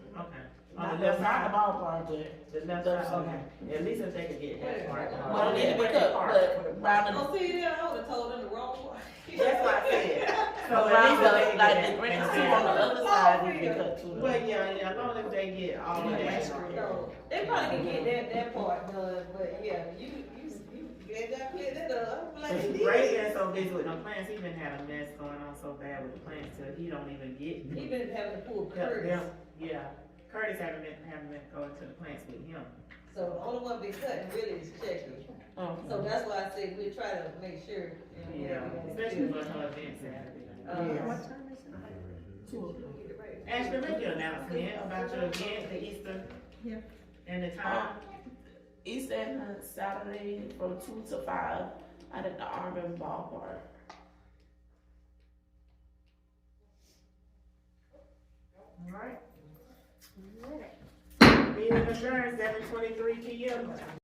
On Not the left side. outside the ballpark, but. The left Left side, okay. At least if they could get that part. Well, they Where pick they up, park. but round the, Oh, see, yeah, I would've told them the wrong one. That's what I said. So at round least if they the, could like the get green two on the that. other side, we pick up two. of them. Well, yeah, yeah, as long as they get all of Yeah, that. no, They probably can get that, that part done, but yeah, you, you, you, they got clear that up, I'm like, Ray been so busy with the plants, he been had a mess going on so bad with the plants till he don't even get. He been having to pull Yeah, curves, yeah, Yeah, Curtis haven't been, haven't been going to the plants with him. so the only one been cutting really is Checker. Mhm. So that's why I said we try to make sure. Yeah, you know, we gotta especially uh, do- when her events happening. Uh, Yes. Two of them. Ashley, make your announcement about your event, the Easter. Yeah. And the time. East End on Saturday from two to five out at the Auburn Ballpark. Alright. Meeting adjourned seven twenty-three P M.